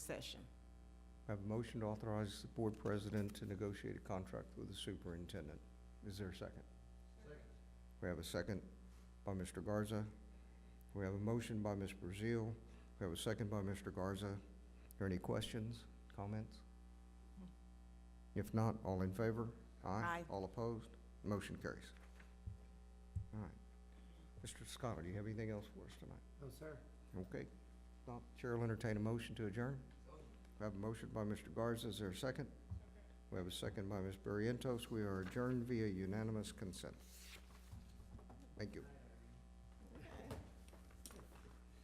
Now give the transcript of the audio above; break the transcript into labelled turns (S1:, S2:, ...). S1: session.
S2: I have a motion to authorize the board president to negotiate a contract with the superintendent. Is there a second? Second. We have a second by Mr. Garza. We have a motion by Ms. Brazil. We have a second by Mr. Garza. Are there any questions, comments? If not, all in favor?
S1: Aye.
S2: All opposed? Motion carries. All right. Mr. Scott, do you have anything else for us tonight?
S3: No, sir.
S2: Okay. Now, Chair will entertain a motion to adjourn. We have a motion by Mr. Garza. Is there a second? We have a second by Ms. Barrientos. We are adjourned via unanimous consent. Thank you.